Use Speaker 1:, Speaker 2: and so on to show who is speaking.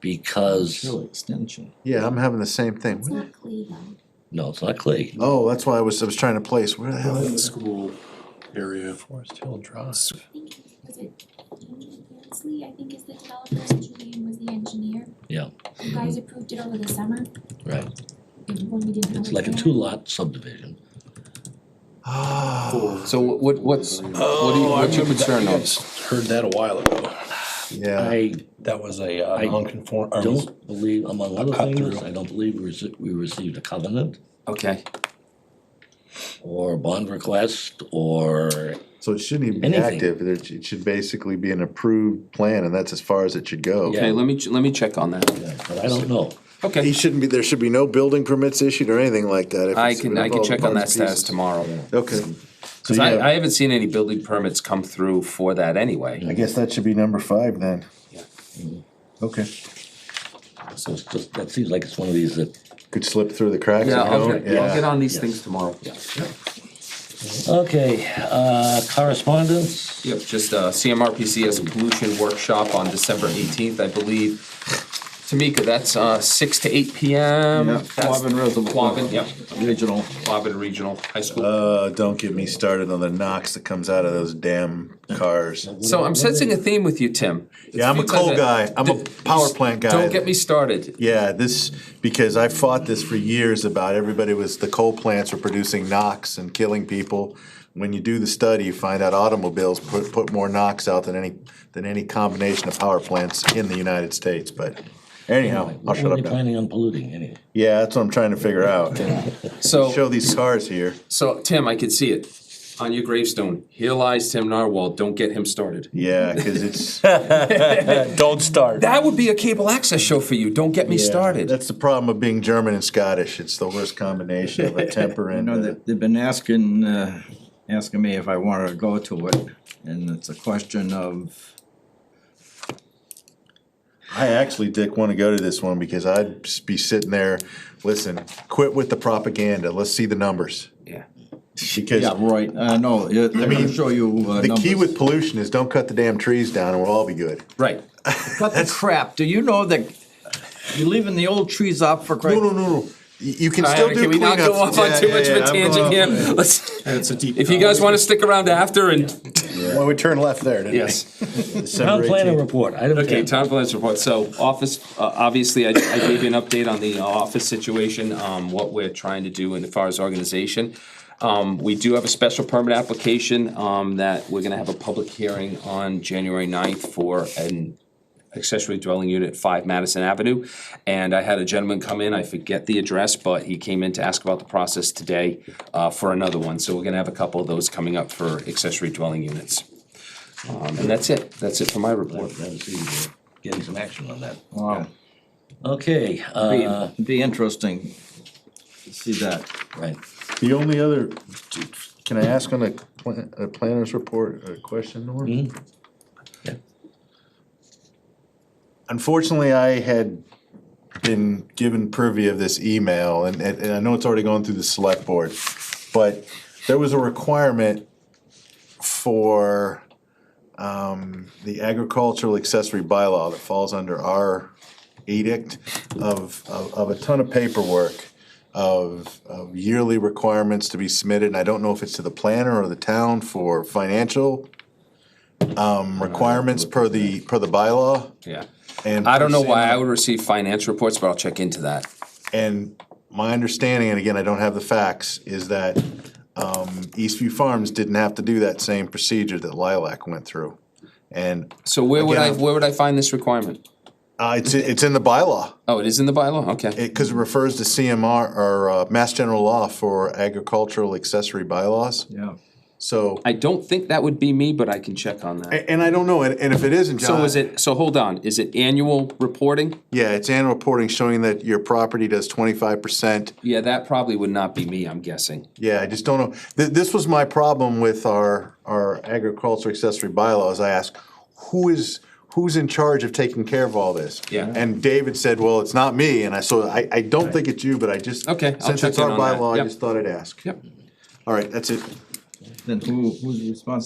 Speaker 1: because,
Speaker 2: Really extension.
Speaker 3: Yeah, I'm having the same
Speaker 4: It's
Speaker 3: thing.
Speaker 4: not Clee though.
Speaker 1: no, it's not Clay.
Speaker 3: Oh, that's why I was, I was trying to place, where the hell
Speaker 5: in the
Speaker 3: is it?
Speaker 5: school area.
Speaker 2: Forest Hill Drive.
Speaker 4: I think, was it Andrew Gansley, I think is the developer, and Julian was the engineer.
Speaker 1: Yeah.
Speaker 4: You guys approved it over the summer?
Speaker 1: Right.
Speaker 4: And When we didn't have.
Speaker 1: It's like a
Speaker 4: plan.
Speaker 1: two lot subdivision.
Speaker 3: Ah,
Speaker 5: Four.
Speaker 6: So what, what- what's, what are you, what's your concern
Speaker 2: Heard
Speaker 6: on?
Speaker 2: Oh, that a while ago.
Speaker 3: yeah,
Speaker 1: I
Speaker 2: That was a
Speaker 1: I
Speaker 2: uh, non-conform, or was-
Speaker 1: don't believe, among other
Speaker 2: cut
Speaker 1: things,
Speaker 2: through.
Speaker 1: I don't believe we rece- we received a covenant
Speaker 6: Okay,
Speaker 1: or a bond request or
Speaker 3: so it shouldn't even be
Speaker 1: Anything.
Speaker 3: active, There- it should basically be an approved plan, and that's as far as it should go.
Speaker 1: Yeah.
Speaker 6: okay, let me, ch- let me check on that.
Speaker 1: Yeah, but I don't know.
Speaker 3: He
Speaker 6: Okay,
Speaker 3: shouldn't be, there should be no building permits issued or anything like that. if
Speaker 6: I
Speaker 3: it's-
Speaker 6: can, I can check on that status
Speaker 3: pieces.
Speaker 6: tomorrow.
Speaker 3: Okay.
Speaker 6: Cause I, I haven't seen any building permits come through for that anyway.
Speaker 3: I guess that should be number five then. Okay,
Speaker 1: So it's just, that seems like it's one of these that,
Speaker 3: could slip through the cracks.
Speaker 6: Yeah,
Speaker 3: you
Speaker 6: I'll
Speaker 3: know?
Speaker 6: get, I'll get on these
Speaker 1: Yes.
Speaker 6: things tomorrow.
Speaker 1: okay, uh, correspondence?
Speaker 6: Yep, just uh, CMRPC has a pollution workshop on December eighteenth, I believe. Tamika, that's uh, six to eight PM.
Speaker 2: Yeah,
Speaker 6: That's-
Speaker 2: Quabbin Reservoir.
Speaker 6: Quabbin, yep,
Speaker 2: Regional.
Speaker 6: Quabbin Regional High School.
Speaker 3: Uh, don't get me started on the knocks that comes out of those damn cars.
Speaker 6: So I'm sensing a theme with you, Tim.
Speaker 3: Yeah, I'm a
Speaker 6: It's because
Speaker 3: coal
Speaker 6: I-
Speaker 3: guy. I'm a power plant guy.
Speaker 6: Don't get me started.
Speaker 3: Yeah, this, because I fought this for years about everybody was, the coal plants were producing NOx and killing people. When you do the study, you find out automobiles put, put more NOx out than any, than any combination of power plants in the United States, but anyhow, I'll
Speaker 1: What
Speaker 3: shut
Speaker 1: were
Speaker 3: up
Speaker 1: they
Speaker 3: now.
Speaker 1: planning on polluting anyway?
Speaker 3: Yeah, that's what I'm trying to figure out. Show
Speaker 6: So,
Speaker 3: these cars here.
Speaker 6: so Tim, I can see it on your gravestone. Here lies Tim Narwhal. Don't get him started.
Speaker 3: Yeah, cause it's.
Speaker 2: Don't start.
Speaker 6: That would be a cable access show for you. Don't get me
Speaker 3: Yeah,
Speaker 6: started.
Speaker 3: That's the problem of being German and Scottish. It's the worst combination of a temper
Speaker 2: You
Speaker 3: and.
Speaker 2: know,
Speaker 3: uh,
Speaker 2: they- they've been asking, uh, asking me if I wanted to go to it, and it's a question of,
Speaker 3: I actually, Dick, want to go to this one because I'd s- be sitting there, listen, quit with the propaganda. Let's see the numbers.
Speaker 6: Yeah.
Speaker 3: Because
Speaker 2: yeah, right, I know, yeah, they're gonna show you uh,
Speaker 3: the key
Speaker 2: numbers.
Speaker 3: with pollution is don't cut the damn trees down and we'll all be good.
Speaker 6: Right.
Speaker 2: Cut the crap, do you know that you're leaving the old trees up for
Speaker 3: No, no,
Speaker 2: Christ's?
Speaker 3: no, no. You you can
Speaker 6: All
Speaker 3: still
Speaker 6: right,
Speaker 3: do
Speaker 6: Can we not
Speaker 3: cleanups.
Speaker 6: go off on
Speaker 3: Yeah,
Speaker 6: too
Speaker 3: yeah,
Speaker 6: much of
Speaker 3: yeah,
Speaker 6: a
Speaker 3: I'm
Speaker 6: tangent
Speaker 3: going
Speaker 6: here?
Speaker 3: off.
Speaker 6: Let's,
Speaker 5: It's a deep.
Speaker 6: if you guys wanna stick around after and,
Speaker 3: Well, we turned left there, didn't we?
Speaker 6: yes.
Speaker 1: Town
Speaker 3: December
Speaker 1: planning
Speaker 3: 18th.
Speaker 1: report, item
Speaker 6: Okay,
Speaker 1: ten.
Speaker 6: town plans report. So office, uh, obviously, I, I gave you an update on the uh, office situation, um, what we're trying to do in as far as organization. Um, we do have a special permit application, um, that we're gonna have a public hearing on January 9th for an accessory dwelling unit, five Madison Avenue. And I had a gentleman come in, I forget the address, but he came in to ask about the process today, uh, for another one. So we're gonna have a couple of those coming up for accessory dwelling units. Um, and that's it. That's it for my report.
Speaker 1: Glad to see you Getting some action on that.
Speaker 2: Wow,
Speaker 1: Okay, uh,
Speaker 2: Be- be interesting to see that.
Speaker 1: right,
Speaker 3: The only other, can I ask on a plan- a planner's report, a question, Norm?
Speaker 1: Yeah.
Speaker 3: Unfortunately, I had been given privy of this email, and, and and I know it's already gone through the select board, but there was a requirement for um, the agricultural accessory bylaw that falls under our edict of, of, of a ton of paperwork of, of yearly requirements to be submitted, and I don't know if it's to the planner or the town for financial um, requirements per the, per the bylaw.
Speaker 6: Yeah.
Speaker 3: And
Speaker 6: I don't know why
Speaker 3: uh,
Speaker 6: I would receive finance reports, but I'll check into that.
Speaker 3: And my understanding, and again, I don't have the facts, is that um, Eastview Farms didn't have to do that same procedure that Lilac went through. And
Speaker 6: So where would I,
Speaker 3: Again, I'm-
Speaker 6: where would I find this requirement?
Speaker 3: uh, it's, it's in the bylaw.
Speaker 6: Oh, it is in the bylaw? Okay.
Speaker 3: It, cause it refers to CMR or, uh, Mass General Law for agricultural accessory bylaws,
Speaker 2: Yeah.
Speaker 3: so,
Speaker 6: I don't think that would be me, but I can check on that.
Speaker 3: a- and I don't know, and, and if it isn't, John.
Speaker 6: So is it, so hold on, is it annual reporting?
Speaker 3: Yeah, it's annual reporting showing that your property does twenty-five percent.
Speaker 6: Yeah, that probably would not be me, I'm guessing.
Speaker 3: Yeah, I just don't know. Th- this was my problem with our, our agriculture accessory bylaws. I asked, who is, who's in charge of taking care of all this?
Speaker 6: Yeah.
Speaker 3: And David said, well, it's not me, and I, so I, I don't think it's you, but I just.
Speaker 6: Okay, I'll
Speaker 3: Since
Speaker 6: check
Speaker 3: it's
Speaker 6: in
Speaker 3: our
Speaker 6: on that.
Speaker 3: bylaw, I
Speaker 6: Yep.
Speaker 3: just thought I'd ask.
Speaker 6: Yep.
Speaker 3: All right, that's it.
Speaker 2: Then who, who's responsible